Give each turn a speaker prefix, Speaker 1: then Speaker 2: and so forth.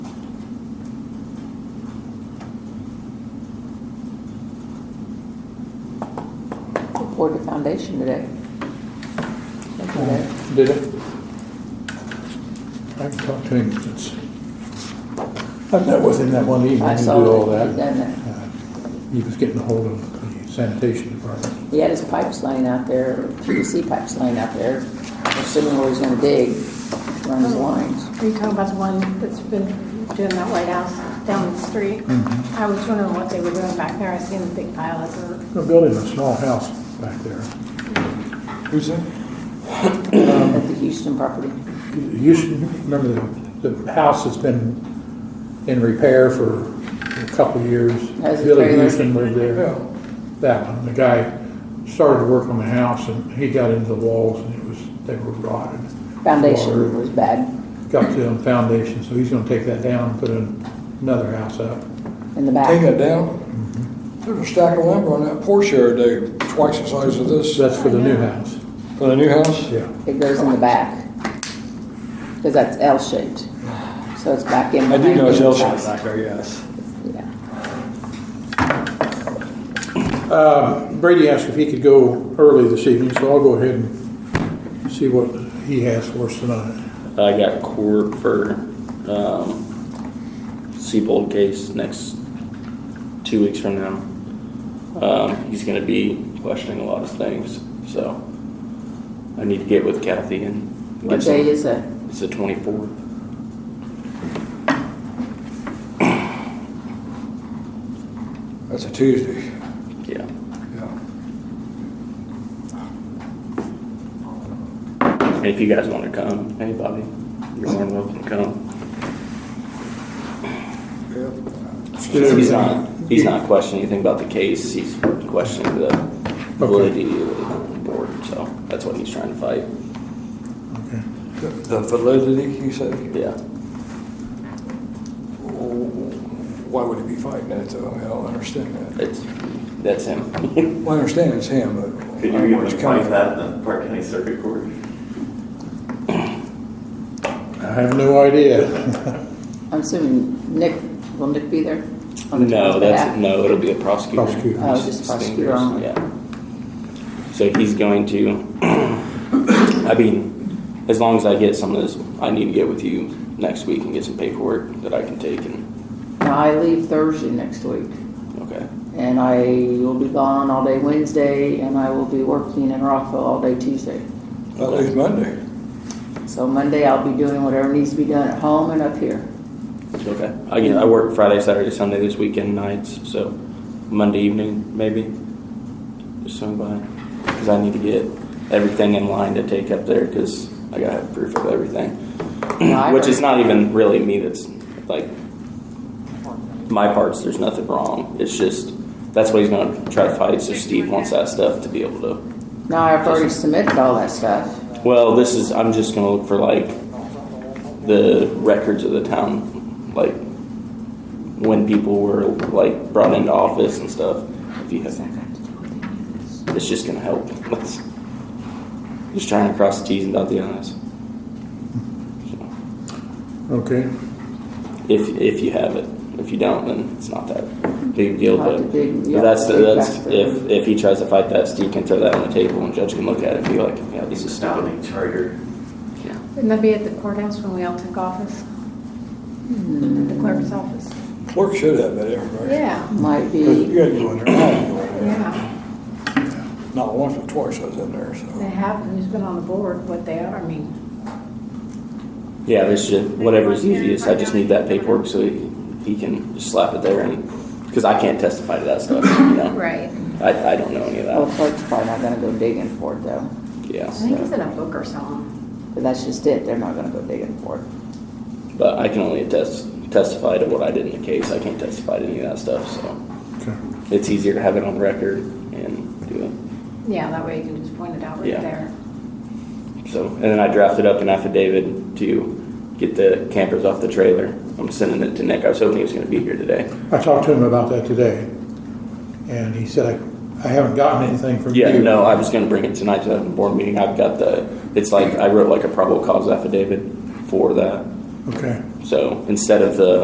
Speaker 1: poured the foundation today.
Speaker 2: Did it? I talked to him since, I met with him that one evening
Speaker 1: I
Speaker 2: and did
Speaker 1: saw
Speaker 2: all
Speaker 1: that he'd
Speaker 2: that.
Speaker 1: done that.
Speaker 2: Uh, He was getting hold of the sanitation department.
Speaker 1: He had his pipes laying out there, PVC pipes laying out there, assuming where he's gonna dig, run his lines.
Speaker 3: Are you talking about the one that's been doing that White House down the street? I was wondering what they were doing back there. I seen a big pile of dirt.
Speaker 2: They're building a small house back there.
Speaker 4: Who's that?
Speaker 1: At the Houston property.
Speaker 2: You should remember the, the house has been in repair for a couple of years.
Speaker 1: Has a
Speaker 2: Billy
Speaker 1: trailer.
Speaker 2: Houston lived there. That one, the guy started work on the house and he got into the walls and it was, they were rotted.
Speaker 1: Foundation
Speaker 2: Water
Speaker 1: was bad.
Speaker 2: Got to them foundation, so he's gonna take that down and put in another house up.
Speaker 1: in the back.
Speaker 4: Take that down. There's a stack of lumber on that porch there, Dave, twice the size of this. uh,
Speaker 2: So that's for the new house,
Speaker 4: For the new house?
Speaker 2: yeah.
Speaker 1: It goes in the back. Because that's L-shaped. So it's back in.
Speaker 4: I do know it's
Speaker 1: behind the
Speaker 4: L-shaped
Speaker 1: house.
Speaker 4: back there, yes.
Speaker 1: Yeah.
Speaker 2: Um, Brady asked if he could go early this evening, so I'll go ahead and see what he has for us tonight.
Speaker 5: I got court for, um, Seabold case next two weeks from now. Um, he's gonna be questioning a lot of things, so I need to get with Kathy and. get
Speaker 1: What
Speaker 5: some-
Speaker 1: day is it?
Speaker 5: It's the twenty-fourth.
Speaker 4: That's a Tuesday.
Speaker 5: Yeah.
Speaker 4: Yeah.
Speaker 5: And if you guys wanna come, anybody, you're more than welcome to come. He's not, he's not questioning anything about the case, he's questioning the validity of the board, so that's what he's trying to fight,
Speaker 2: Okay.
Speaker 4: The the validity, you said?
Speaker 5: yeah.
Speaker 4: Why would he be fighting that though? I don't understand that.
Speaker 5: It's, that's him.
Speaker 4: Well, I understand it's him, but.
Speaker 6: Could you even find that in the Park County Circuit Court?
Speaker 2: I have no idea.
Speaker 1: I'm assuming Nick, will Nick be there? on the
Speaker 5: No,
Speaker 1: 12th?
Speaker 5: that's, no, it'll be a prosecutor.
Speaker 2: Prosecutor.
Speaker 1: Oh, just prosecutor only.
Speaker 5: Yeah. So he's going to, I mean, as long as I get some of this, I need to get with you next week and get some paperwork that I can take and,
Speaker 1: Now, I leave Thursday next week,
Speaker 5: okay.
Speaker 1: and I will be gone all day Wednesday, and I will be working in Rockville all day Tuesday.
Speaker 4: That leaves Monday.
Speaker 1: So Monday, I'll be doing whatever needs to be done at home and up here.
Speaker 5: Okay. I get, I work Friday, Saturday, Sunday this weekend nights, so Monday evening maybe. Just swing by, because I need to get everything in line to take up there, because I gotta have proof of everything.
Speaker 1: Now, I
Speaker 5: Which is
Speaker 1: heard-
Speaker 5: not even really me that's like, my parts, there's nothing wrong. It's just, that's what he's gonna try to fight, so Steve wants that stuff to be able to.
Speaker 1: Now, I've already submitted all that stuff.
Speaker 5: Well, this is, I'm just gonna look for like the records of the town, like when people were like brought into office and stuff. If you have, it's just gonna help. That's- Just trying to cross the T's and dot the I's.
Speaker 2: Okay,
Speaker 5: If, if you have it. If you don't, then it's not that big deal,
Speaker 1: Not
Speaker 5: but
Speaker 1: the big- yeah,
Speaker 5: that's,
Speaker 1: the big
Speaker 5: that's,
Speaker 1: factor.
Speaker 5: if, if he tries to fight that, Steve can throw that on the table and judge can look at it and be like, yeah, this is stupid.
Speaker 6: Astounding charter.
Speaker 5: Yeah.
Speaker 3: Wouldn't that be at the courthouse when we all took office? At the clerk's office?
Speaker 4: Clerk should have that information.
Speaker 3: Yeah,
Speaker 1: Might
Speaker 4: But You
Speaker 1: be,
Speaker 4: had to go in there. I had to go in there.
Speaker 3: yeah.
Speaker 4: Not once, but twice I was in there,
Speaker 3: They
Speaker 4: so.
Speaker 3: have, who's been on the board, what they are, I mean,
Speaker 5: Yeah, this should, whatever's easiest, I just need that paperwork so he, he can just slap it there and, because I can't testify to that stuff, you know?
Speaker 3: right.
Speaker 5: I, I don't know any of
Speaker 1: well, the
Speaker 5: that,
Speaker 1: clerk's probably not gonna go digging for it though,
Speaker 3: I
Speaker 5: yeah.
Speaker 3: think it's in a book or something.
Speaker 1: but that's just it, they're not gonna go digging for it.
Speaker 5: But I can only attest, testify to what I did in the case, I can't testify to any of that stuff, so
Speaker 2: okay.
Speaker 5: it's easier to have it on record and do it.
Speaker 3: Yeah, that way you can just point it out right
Speaker 5: Yeah.
Speaker 3: there.
Speaker 5: So, and then I drafted up an affidavit to get the campers off the trailer. I'm sending it to Nick. I was hoping he was gonna be here today.
Speaker 2: I talked to him about that today, and he said, I, I haven't gotten anything from you.
Speaker 5: Yeah, no, I was gonna bring it tonight to the board meeting. I've got the, it's like, I wrote like a probable cause affidavit for that.
Speaker 2: Okay,
Speaker 5: So instead of the